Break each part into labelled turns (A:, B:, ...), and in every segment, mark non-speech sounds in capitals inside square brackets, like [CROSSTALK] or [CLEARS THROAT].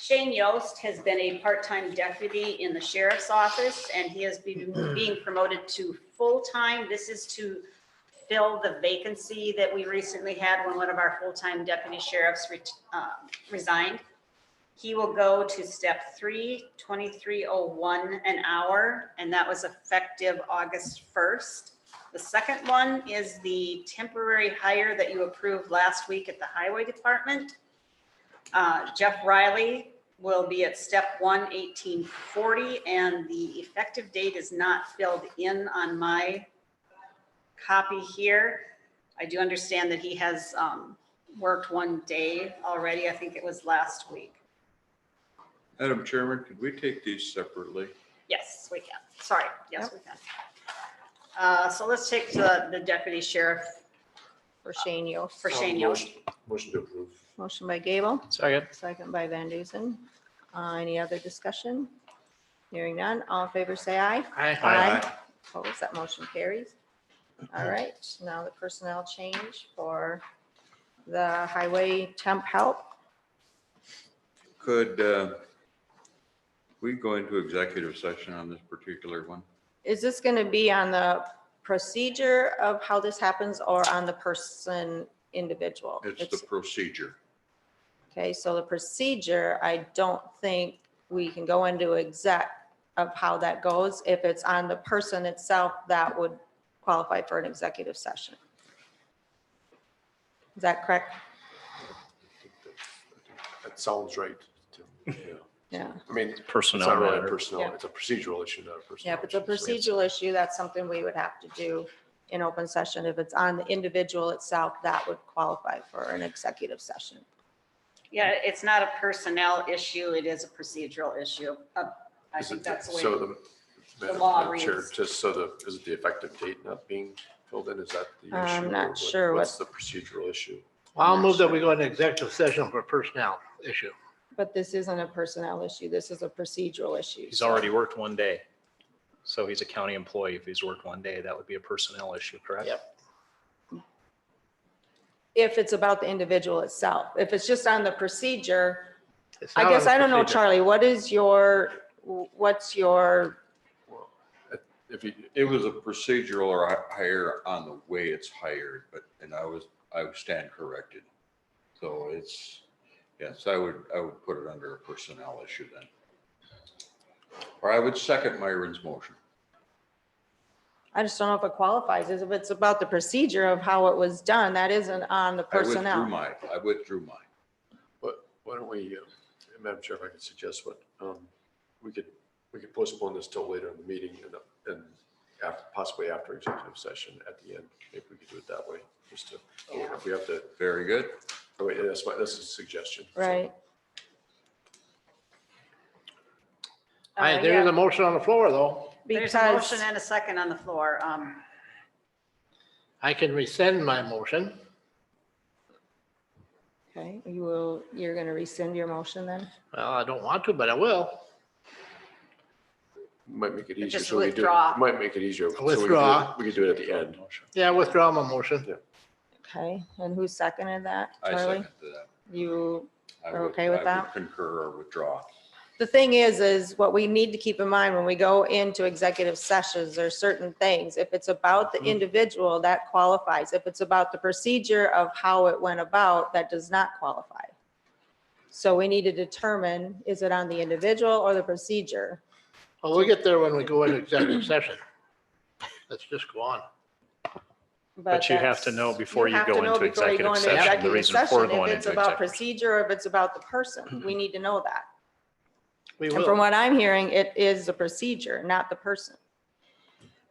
A: Shane Yost has been a part-time deputy in the sheriff's office, and he has been being promoted to full-time. This is to fill the vacancy that we recently had when one of our full-time deputy sheriffs ret- uh, resigned. He will go to step three, 2301 an hour, and that was effective August 1st. The second one is the temporary hire that you approved last week at the Highway Department. Uh, Jeff Riley will be at step one, 1840, and the effective date is not filled in on my copy here. I do understand that he has um, worked one day already. I think it was last week.
B: Madam Chairman, could we take these separately?
A: Yes, we can. Sorry. Yes, we can. Uh, So let's take the the deputy sheriff
C: for Shane Yost.
A: for
D: Oh,
A: Shane Yost.
D: Motion to approve.
C: Motion by Gable,
E: Second.
C: second by Van Dusen. Uh, Any other discussion? Hearing none, all in favor say aye.
E: Aye.
C: Opposed, that motion carries. All right, now the personnel change for the highway temp help.
B: Could uh, we go into executive session on this particular one?
C: Is this going to be on the procedure of how this happens or on the person individual?
B: It's the procedure.
C: Okay, so the procedure, I don't think we can go into exec of how that goes. If it's on the person itself, that would qualify for an executive session. Is that correct?
D: That sounds right. to me, yeah.
C: Yeah.
D: I mean, it's
E: Personnel
D: not really a
E: matter.
D: personnel,
C: Yeah.
D: it's a procedural issue, not a personal.
C: Yeah, if it's a
D: issue, so
C: procedural issue, that's something we would have to do in open session. If it's on the individual itself, that would qualify for an executive session.
A: Yeah, it's not a personnel issue. It is a procedural issue. Uh, I
D: Is
A: think
D: it-
A: that's the way.
D: So the. Madam-
A: law
D: Madam Chair,
A: reads.
D: Just so the, is it the effective date not being filled in? Is that the
A: Uh,
D: issue?
C: I'm not
D: or what-
C: sure what-
D: What's the procedural issue?
E: I'll move that we go into executive session for personnel issue.
C: But this isn't a personnel issue. This is a procedural issue.
F: He's already worked one day. So he's a county employee. If he's worked one day, that would be a personnel issue, correct?
E: Yep.
C: If it's about the individual itself, if it's just on the procedure,
E: It's
C: I
E: not
C: guess
E: on
C: I don't know,
E: procedure.
C: Charlie, what is your, what's your,
B: If you- it was a procedural or hi- hire on the way it's hired, but, and I was, I stand corrected. So it's, yes, I would, I would put it under a personnel issue then. Or I would second Myron's motion.
C: I just don't know if it qualifies, is if it's about the procedure of how it was done, that isn't on the
B: I withdrew
C: personnel.
B: mine. I withdrew mine.
D: What, why don't we, uh, Madam Chair, if I could suggest what, um, we could, we could postpone this till later in the meeting and, and after, possibly after executive session at the end. Maybe we could do it that way, just to, if we have to,
B: Very good.
D: oh, wait, that's my, that's a suggestion. so.
C: Right.
E: Aye,
C: Uh,
E: there is
C: yeah,
E: a motion on the floor, though.
A: There's a motion
C: Because,
A: and a second on the floor. Um,
E: I can rescind my motion.
C: okay, you will, you're going to rescind your motion then?
E: Well, I don't want to, but I will.
D: Might make it easier.
A: Just
D: so we do-
A: withdraw.
D: Might make it easier. so we could do it-
E: Withdraw.
D: We could do it at the end.
E: Yeah, I withdraw my motion.
C: Okay, and who seconded that,
B: I
C: Charlie?
B: second that.
C: You
B: I
C: Are
B: would-
C: okay
B: I
C: with
B: would
C: that?
B: Concur or withdraw.
C: the thing is, is what we need to keep in mind when we go into executive sessions, there are certain things. If it's about
F: Mm-hmm.
C: the individual, that qualifies. If it's about the procedure of how it went about, that does not qualify. So we need to determine, is it on the individual or the procedure?
E: Well, we'll get there when we go into executive session. Let's just go on.
F: But you have to
C: that's-
F: know before you
C: have to
F: go
C: know
F: into
C: before you go
F: executive
C: into
F: session, the
C: executive
F: reason for
C: session,
F: going
C: If it's
F: into
C: about
F: executive. session.
C: procedure, or if it's about the person,
F: [CLEARS THROAT]
C: we need to know that.
E: We
C: And from
E: will.
C: what I'm hearing, it is the procedure, not the person.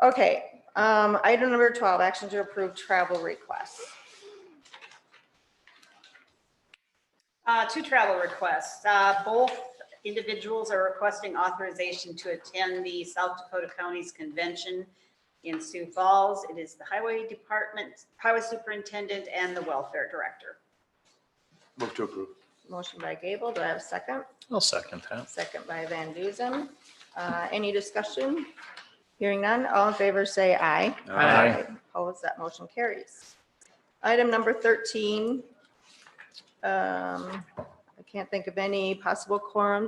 C: Okay, um, item number twelve, action to approve travel requests.
A: Uh, Two travel requests. Uh, Both individuals are requesting authorization to attend the South Dakota Counties Convention in Sioux Falls. It is the Highway Department, Highway Superintendent, and the Welfare Director.
D: Move to approve.
C: Motion by Gable, do I have a second?
F: I'll second that.
C: Second by Van Dusen. Uh, any discussion? Hearing none, all in favor say aye.
E: Aye.
C: Opposed, that motion carries. Item number thirteen. Um, I can't think of any possible quorums